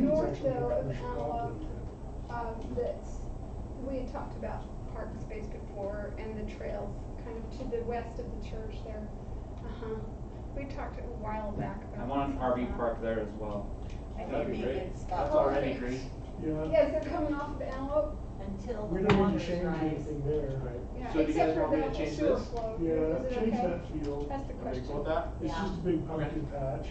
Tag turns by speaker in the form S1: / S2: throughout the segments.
S1: Marshall of Antelope, um, that's, we had talked about park space before and the trails kind of to the west of the church there. Uh-huh. We talked a while back about.
S2: I want an
S1: this.
S2: RV park there as well.
S3: I
S4: That'd
S3: think
S4: be
S3: they
S4: great.
S3: can
S4: That's
S3: stop
S4: already green.
S3: uh,
S1: Yeah, as they're coming off of Antelope,
S3: until
S5: We
S3: the
S5: don't need
S3: waters
S5: to change
S3: rise.
S5: anything there.
S1: yeah,
S4: So do you guys
S1: except for
S4: want me
S1: the
S4: to
S1: whole
S4: change
S1: sewer
S4: this?
S1: flow. Is it
S5: Yeah, change
S1: okay?
S5: that field.
S1: That's the
S4: Are you
S1: question.
S4: cool with that?
S5: It's
S3: Yeah.
S5: just a big pumpkin patch.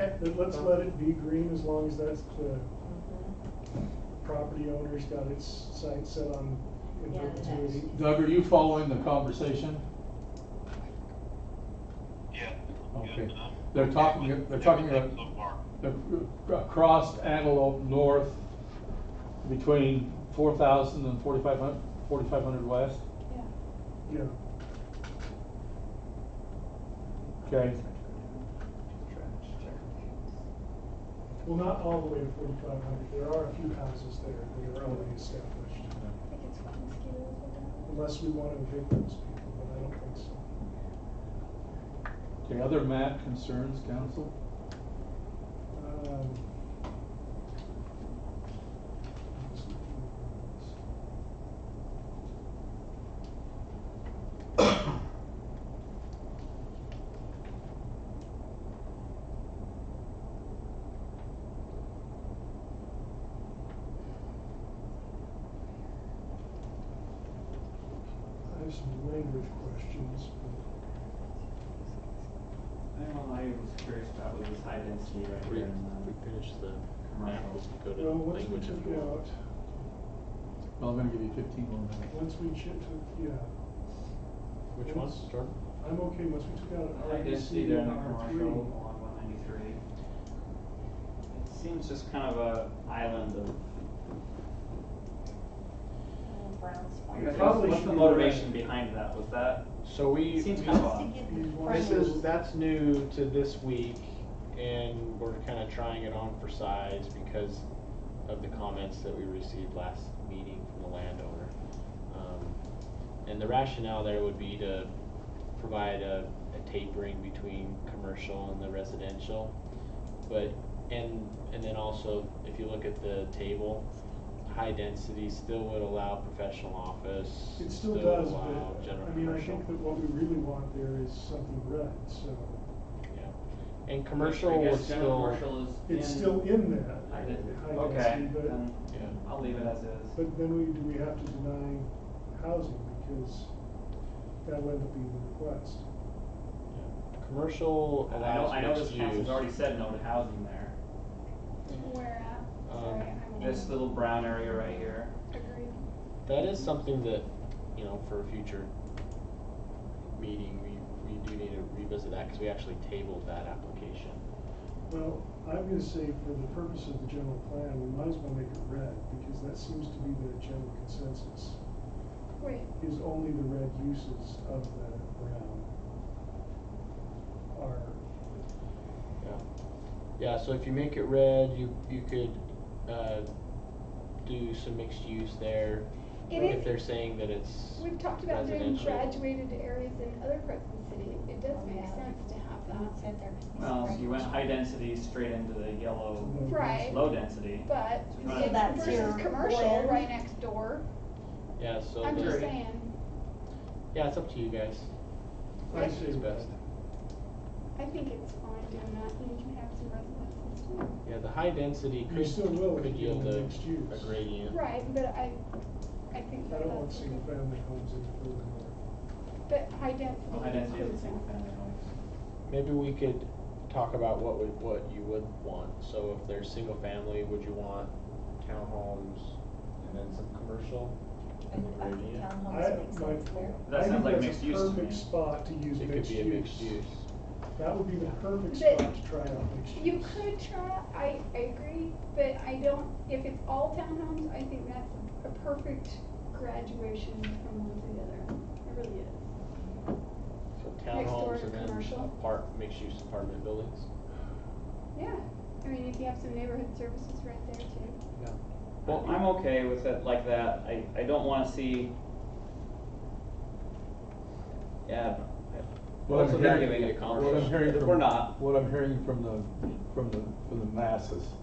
S5: But let's let it be green as long as that's the
S3: Mhm.
S5: property owner's got its sights set on in
S3: Yeah, the next.
S5: perpetuity.
S6: Doug, are you following the conversation?
S7: Yeah.
S6: Okay.
S7: Yes, um,
S6: They're talking, they're talking
S7: everything
S6: about,
S7: So far.
S6: they're across Antelope North between 4,000 and 4,500 4,500 west.
S1: Yeah.
S5: Yeah,
S6: Okay,
S5: well, not all the way to forty-five hundred, there are a few houses there that are already established.
S1: I think it's what mosquitoes are down.
S5: Unless we want to evict those people, but I don't think so.
S6: okay, other map concerns, council?
S5: Um, I have some language questions, but
S2: I don't know, I was curious about with this high density right
S4: We,
S2: here
S4: we
S2: and
S4: finish the map,
S2: commercial.
S4: we go to
S5: well, once we
S4: language if you
S5: took
S4: want.
S5: out,
S6: Well, I'm gonna give you 15 more minutes.
S5: once we chip took, yeah.
S4: Which one? Jordan?
S5: I'm okay once we took out
S2: the
S5: an
S2: high density
S5: RDC
S2: there in
S5: and
S2: the
S5: R
S2: commercial
S5: three.
S2: along one ninety-three. It seems just kind of a island of.
S3: Little brown spot.
S5: We
S2: What's-
S5: probably
S2: What's
S5: should
S2: the
S5: be
S2: motivation
S5: right.
S2: behind that? Was that,
S4: So we.
S2: it seems
S4: we-
S2: kind of
S3: Just to
S2: odd.
S3: get
S5: This
S3: the
S5: Right.
S4: This
S3: front.
S4: is, that's new to this week and we're kinda trying it on for size because of the comments that we received last meeting from the landowner. Um, And the rationale there would be to provide a, a tapering between commercial and the residential. But, and, and then also, if you look at the table, high density still would allow professional office.
S5: It still does,
S4: allow
S5: but,
S4: general
S5: I mean, I
S4: commercial.
S5: think that what we really want there is something red, so
S4: Yeah, and
S2: I
S4: commercial
S2: guess
S4: was
S2: general
S4: still,
S2: commercial is
S5: it's
S2: in-
S5: still in that.
S2: I didn't,
S5: high
S2: okay, Um,
S5: density,
S2: then
S5: But,
S4: yeah,
S2: I'll leave it as is.
S5: but then we, do we have to deny housing because that'll end up being the request.
S4: yeah. commercial
S2: I know,
S4: allows
S2: I know this
S4: mixed
S2: council's
S4: use.
S2: already said no to housing there.
S1: Where at? Sorry,
S4: Um,
S1: I'm.
S2: This little brown area right here.
S1: Agreed.
S4: That is something that, you know, for a future meeting, we, we do need to revisit that, cause we actually tabled that application.
S5: Well, I'm gonna say for the purpose of the general plan, we might as well make it red, because that seems to be the general consensus,
S1: Wait,
S5: is only the red uses of the brown are
S4: Yeah, yeah, so if you make it red, you, you could, uh, do some mixed use there.
S1: It
S4: If
S1: is-
S4: they're saying that it's
S1: We've talked about doing
S4: residential.
S1: graduated areas in other parts of the city. It does make
S3: Yeah.
S1: sense to have
S3: Not
S1: that.
S3: said there.
S2: Well, so you went high density straight into the yellow,
S1: Right.
S2: low density.
S1: But
S2: So
S3: So
S1: it's
S3: that's
S1: versus
S3: your
S1: commercial
S3: blend.
S1: right next door.
S4: Yeah, so,
S1: I'm just
S4: the-
S1: saying,
S4: yeah, it's up to you guys,
S5: I
S1: Right.
S5: see.
S4: it's best.
S1: I think it's fine doing that and you can have some residences too.
S4: Yeah, the high density
S5: You
S4: could,
S5: still will if
S4: could
S5: you
S4: yield
S5: do
S4: a,
S5: mixed use.
S4: a gradient.
S1: Right, but I, I think
S5: I
S1: that
S5: don't want
S1: that's,
S5: single family homes in the building.
S1: but high
S2: Well, high
S1: density
S2: density is a
S1: includes
S2: single
S1: that.
S2: family home.
S4: Maybe we could talk about what would, what you would want, so if there's single family, would you want townhomes and then some commercial? And the gradient?
S5: I-
S3: uh, Townhomes make
S5: my-
S3: sense there.
S2: That
S5: I think
S2: sounds like
S5: that's a
S2: mixed use to
S5: Perfect
S2: me.
S5: spot to use
S4: It could
S5: mixed
S4: be a mixed
S5: use.
S4: use.
S5: That would be the perfect
S1: But
S5: spot to try out mixed use.
S1: You could try, I, I agree, but I don't, if it's all townhomes, I think that's a perfect graduation from one to the other. It really is.
S4: So
S1: door
S4: townhomes and then
S1: commercial.
S4: apart, mixed use apartment buildings.
S1: Yeah, I mean, if you have some neighborhood services right there too.
S2: Well, I'm okay with it like that, I, I don't wanna see. Yeah. I-
S6: What I'm
S2: So they're
S6: hearing-
S2: giving it a
S6: What I'm
S2: commercial.
S6: hearing
S2: If
S6: from-
S2: we're not.
S6: What I'm hearing from the, from the, from the masses